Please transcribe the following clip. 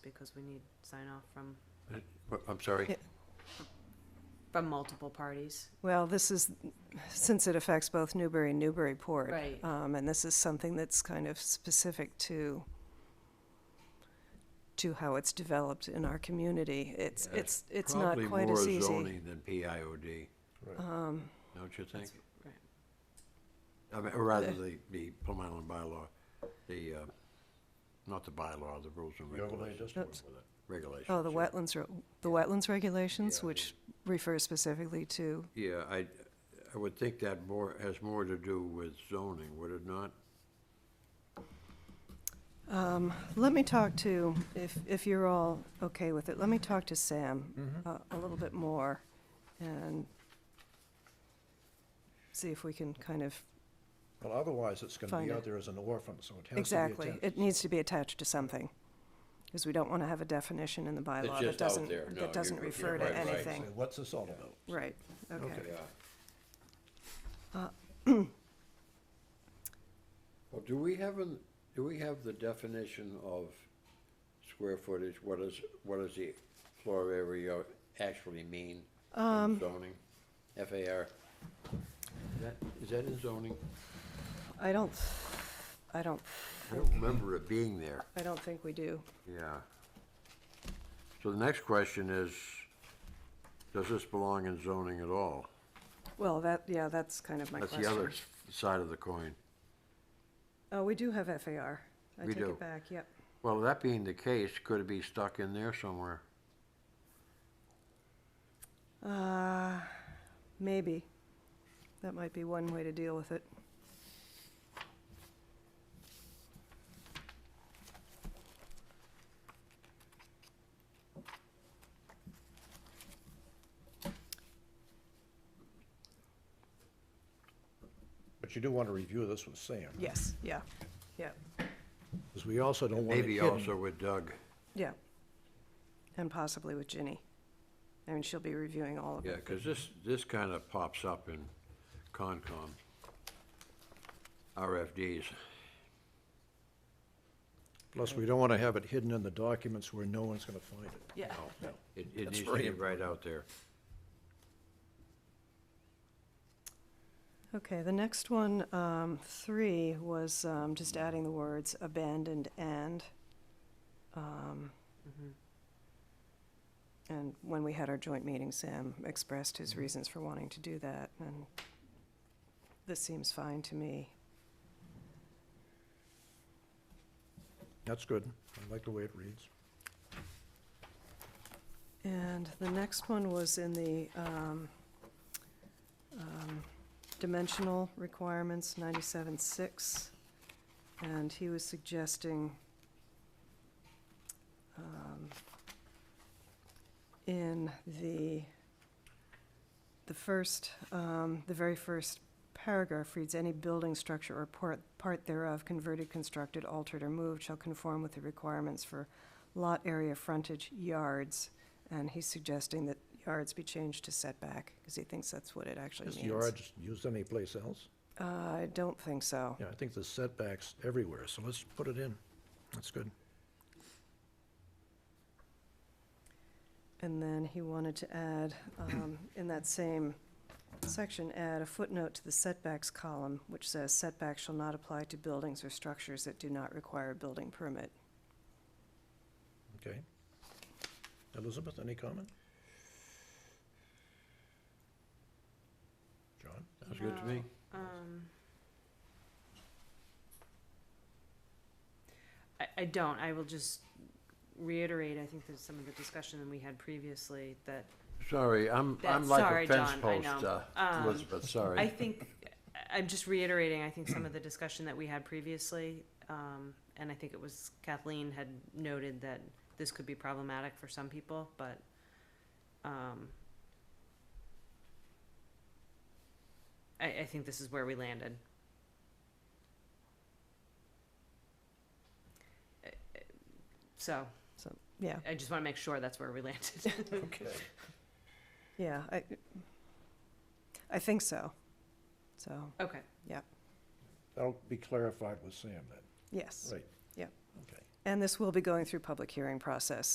because we need sign off from, I'm sorry. Yeah. from multiple parties. Well, this is, since it affects both Newbury and Newburyport. Right. Um, and this is something that's kind of specific to, to how it's developed in our community. It's, Yeah, it's, it's not quite as Probably more easy. Um, zoning than PIOD, don't you think? Right. I mean, or rather the, the Plum Island bylaw, the, uh, not the bylaw, the rules and regulations. Oops. Regulations. Oh, the yeah. wetlands, re- the wetlands regulations, Yeah, which refer specifically to, Yeah, I, I would think that more, has more to do with zoning, would it not? let me talk to, if, if you're all okay with it, let me talk to Mm-hmm. Sam uh, a little bit more and see if we can kind of Well, otherwise, it's gonna Find be it. out there as an orphan, so it has to be Exactly. attached. It needs to be attached to something, because we don't want to have a definition in the bylaw just out that doesn't, there. No, that doesn't you're- you're refer to right, right. anything. Say, What's this all about? Right, okay. Uh, Well, do we have, an- do we have the definition of square footage? What is, what does the floor area actually mean Um, in zoning? FAR? Is that, is that in zoning? I don't, I don't, I don't remember it being there. I don't think we do. Yeah. So the next question is, does this belong in zoning at all? Well, that, yeah, that's kind of my That's question. the other s- side of the coin. Oh, we do have FAR. I We take do. it back, yep. Well, that being the case, could it be stuck in there somewhere? Uh, maybe. That might be one way to deal with it. But you do wanna review this with Sam. Yes, yeah, yeah, Because we also don't want it Maybe also hidden. with Doug. yeah. And possibly with Ginny. I mean, she'll be reviewing all of it. Yeah, because this, this kind of pops up in Concom, RFDs. Plus, we don't wanna have it hidden in the documents where no one's gonna find it. Yeah. Oh, It, it That's needs to very get right out there. Okay, the next one, um, three, was, um, just adding the words abandoned and. um, Mm-hmm. And when we had our joint meeting, Sam expressed his reasons for wanting to do that, and this seems fine to me. That's good. I like the way it reads. And the next one was in the, um, um, dimensional requirements, ninety-seven six. And he was suggesting, um, in the, the first, um, the very first paragraph reads, any building structure or part, part thereof converted, constructed, altered, or moved shall conform with the requirements for lot area frontage yards. And he's suggesting that yards be changed to setback, because he thinks that's what it actually Is means. yards used anyplace else? Uh, I don't think so. Yeah, I think the setbacks everywhere, so let's put it in. That's good. And then he wanted to add, um, in that same section, add a footnote to the setbacks column, which says setbacks shall not apply to buildings or structures that do not require a building permit. Okay. Elizabeth, any comment? John? Sounds good to me. Um, I, I don't, I will just reiterate, I think there's some of the discussion that we had previously that Sorry, I'm, I'm That- like sorry, a fence John, I post, know. uh, Um, Elizabeth, I sorry. think, I- I'm just reiterating, I think some of the discussion that we had previously, um, and I think it was Kathleen had noted that this could be problematic for some people, but, um, I, I think this is where we landed. Uh, uh, So, So, yeah, I just wanna make sure that's where we landed. Okay. yeah, I, I think so. So, Okay, That'll be clarified with Sam then, yes. right? Yep. Okay. And this will be going through public hearing process,